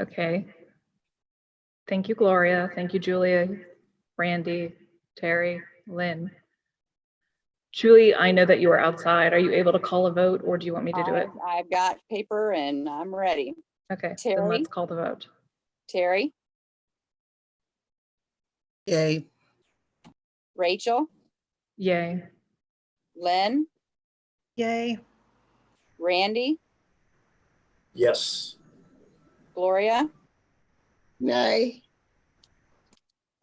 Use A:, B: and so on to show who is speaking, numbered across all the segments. A: Okay. Thank you, Gloria. Thank you, Julia, Randy, Terry, Lynn. Julie, I know that you are outside. Are you able to call a vote or do you want me to do it?
B: I've- I've got paper and I'm ready.
A: Okay, then
B: Terry?
A: let's call the vote.
B: Terry,
C: Yay,
B: Rachel,
A: Yay.
B: Lynn,
D: Yay,
B: Randy,
E: Yes.
B: Gloria,
C: nay,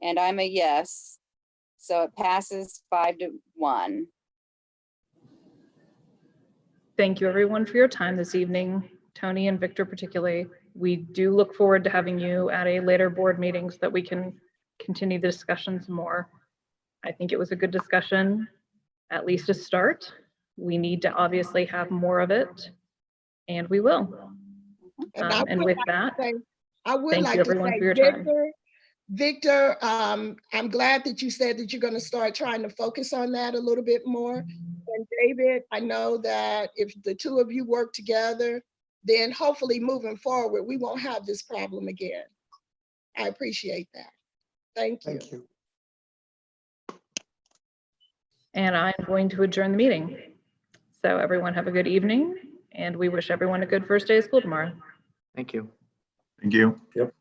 B: and I'm a yes. So it passes five to one.
A: Thank you, everyone, for your time this evening, Tony and Victor particularly. We do look forward to having you at a later board meeting so that we can continue the discussions more. I think it was a good discussion, at least a start. We need to obviously have more of it, and we will.
C: And I
A: Um, And
C: would
A: with
C: like
A: that,
C: say- I would
A: Thank
C: like
A: you,
C: to say,
A: everyone, for your time.
C: Victor, Victor, um, I'm glad that you said that you're gonna start trying to focus on that a little bit more. And David, I know that if the two of you work together, then hopefully moving forward, we won't have this problem again. I appreciate that. Thank you.
F: Thank you.
A: and I'm going to adjourn the meeting. So everyone have a good evening, and we wish everyone a good first day of school tomorrow.
G: Thank you.
H: Thank you.